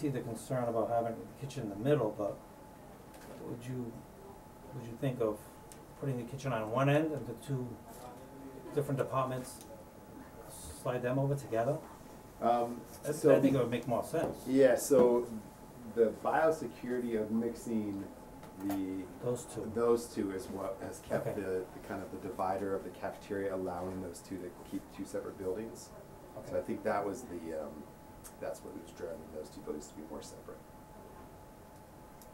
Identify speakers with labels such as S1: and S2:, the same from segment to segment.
S1: see the concern about having the kitchen in the middle, but would you, would you think of putting the kitchen on one end and the two different departments, slide them over together?
S2: Um,
S1: I
S2: so,
S1: think it would make more sense,
S2: yeah, so the biosecurity of mixing the
S1: those two.
S2: those two is what has kept
S1: Okay.
S2: the, the kind of the divider of the cafeteria, allowing those two to keep two separate buildings. So I
S1: Okay.
S2: think that was the, um, that's what was driving those two buildings to be more separate.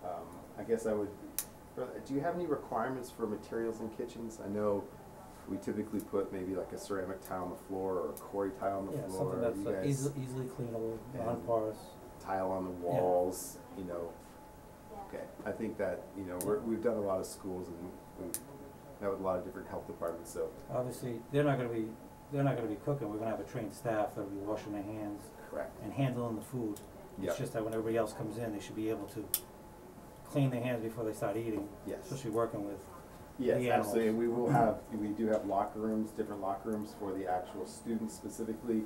S2: Um, I guess I would, do you have any requirements for materials in kitchens? I know we typically put maybe like a ceramic tile on the floor or a quarry tile on the
S1: Yeah,
S2: floor.
S1: something
S2: You
S1: that's uh,
S2: guys-
S1: easily, easily cleanable,
S2: And-
S1: non-porous.
S2: tile on the walls, you know. Okay, I think that, you know, we're, we've done a lot of schools and we've met with a lot of different health departments, so.
S1: Obviously, they're not gonna be, they're not gonna be cooking, we're gonna have a trained staff that'll be washing their hands
S2: Correct.
S1: and handling the food.
S2: Yeah.
S1: It's just that when everybody else comes in, they should be able to clean their hands before they start eating,
S2: Yes,
S1: especially working with
S2: yes,
S1: the
S2: absolutely, and we will have, we do have locker rooms, different locker rooms for the actual students specifically.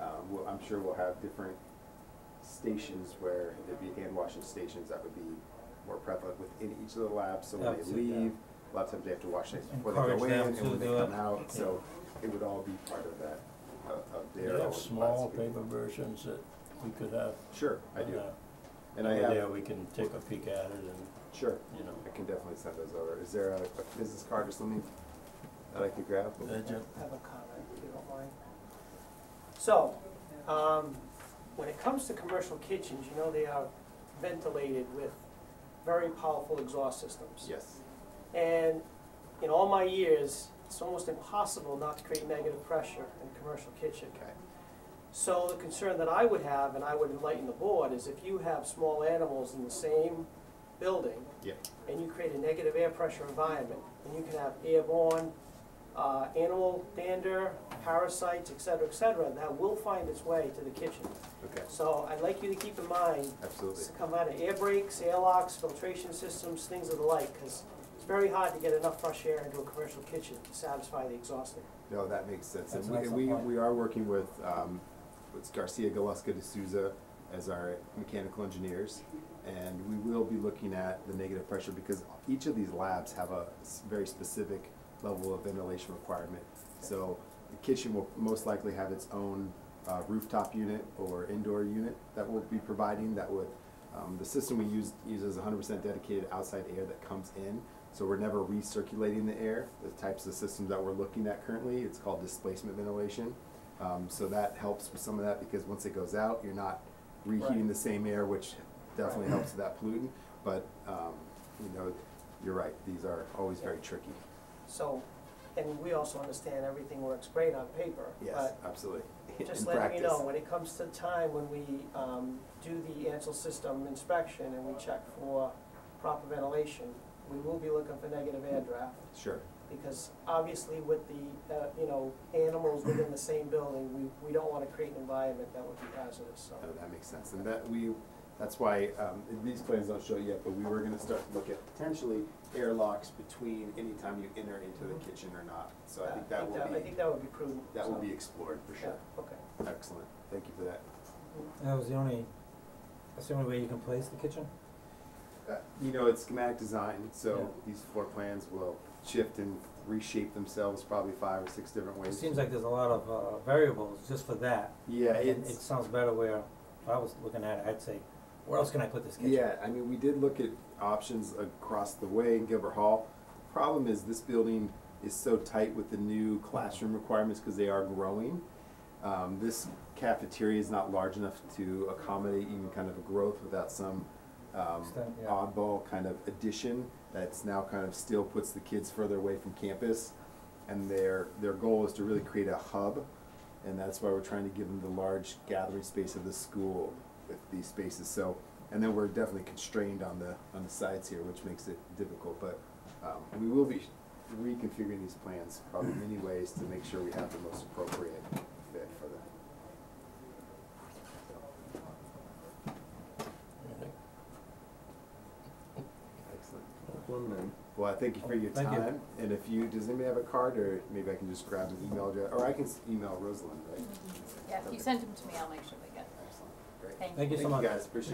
S2: Um, we'll, I'm sure we'll have different stations where there'd be hand washing stations that would be more prevalent within each of the labs, so when they
S1: Absolutely, yeah.
S2: leave, a lot of times they have to wash their hands before they go
S1: Encourage
S2: in
S1: them
S2: and
S1: to
S2: when they
S1: do it.
S2: come out, so it would all be part of that, uh, of, of
S3: They
S2: their.
S3: have small
S2: philosophy.
S3: paper versions that we could have.
S2: Sure, I do,
S3: uh,
S2: and I
S3: over there,
S2: have,
S3: we can take a peek at it and,
S2: sure,
S3: you know,
S2: I can definitely send those over, is there a, a business card or something that I could grab?
S3: uh, ju-
S4: I have a comment, if you don't mind. So, um, when it comes to commercial kitchens, you know they are ventilated with very powerful exhaust systems.
S2: Yes,
S4: And in all my years, it's almost impossible not to create negative pressure in a commercial kitchen.
S2: okay,
S4: So the concern that I would have, and I would enlighten the board, is if you have small animals in the same building,
S2: yeah,
S4: and you create a negative air pressure environment, and you can have airborne, uh, animal dander, parasites, et cetera, et cetera, that will find its way to the kitchen.
S2: okay,
S4: So I'd like you to keep in mind,
S2: absolutely,
S4: this come out of air brakes, air locks, filtration systems, things of the like, because it's very hard to get enough fresh air into a commercial kitchen to satisfy the exhaust.
S2: no, that makes sense, and
S1: That's
S2: we,
S1: an
S2: and we,
S1: excellent point.
S2: we are working with, um, with Garcia Galusca de Souza as our mechanical engineers, and we will be looking at the negative pressure, because each of these labs have a s- very specific level of ventilation requirement. So the kitchen will most likely have its own uh, rooftop unit or indoor unit that we'll be providing that would, um, the system we use uses hundred percent dedicated outside air that comes in. So we're never recirculating the air, the types of systems that we're looking at currently, it's called displacement ventilation. Um, so that helps with some of that because once it goes out, you're not reheating
S4: Right.
S2: the same air, which definitely helps with that pollutant. But, um, you know, you're right, these are always very tricky.
S4: So, and we also understand everything works great on paper,
S2: Yes,
S4: but
S2: absolutely. In
S4: Just letting you know,
S2: practice.
S4: when it comes to time, when we um, do the Ansel system inspection and we check for proper ventilation, we will be looking for negative air draft,
S2: Sure,
S4: because obviously with the, uh, you know, animals within the same building, we, we don't want to create an environment that would be hazardous, so.
S2: no, Uh, that makes sense, and that we, that's why, um, these plans don't show yet, but we were gonna start to look at potentially airlocks between any time you enter into the kitchen or not, so I think that will
S4: Uh, I
S2: be,
S4: think that would be prudent.
S2: that will
S4: so,
S2: be explored for sure.
S4: yeah, Okay.
S2: Excellent, thank you for that.
S1: That was the only, that's the only way you can place the kitchen?
S2: Uh, You know, it's schematic design,
S1: Yeah.
S2: so these floor plans will shift and reshape themselves probably five or six different
S1: It
S2: ways.
S1: seems like there's a lot of uh, variables just for that.
S2: Yeah,
S1: And
S2: it's.
S1: It sounds better where, if I was looking at it, I'd say, where else can I put this kitchen?
S2: Yeah, I mean, we did look at options across the way in Gilbert Hall. Problem is, this building is so tight with the new classroom requirements because they are growing. Um, this cafeteria is not large enough to accommodate even kind of a growth without some um,
S1: Extent, yeah.
S2: oddball kind of addition that's now kind of still puts the kids further away from campus. And their, their goal is to really create a hub, and that's why we're trying to give them the large gathering space of the school with these spaces. So, and then we're definitely constrained on the, on the sides here, which makes it difficult, but, um, we will be reconfiguring these plans probably in many ways to make sure we have the most appropriate fit for them.
S3: I think
S2: Excellent.
S5: One minute.
S2: Well, I thank you for your
S1: Thank you.
S2: time, and if you, does anybody have a card, or maybe I can just grab an email address, or I can s- email Rosalind, right?
S6: Yeah, if you send them to me, I'll make sure they get it.
S2: Excellent, great.
S6: Thank you.
S1: Thank you so much.
S2: Thank you guys, appreciate it.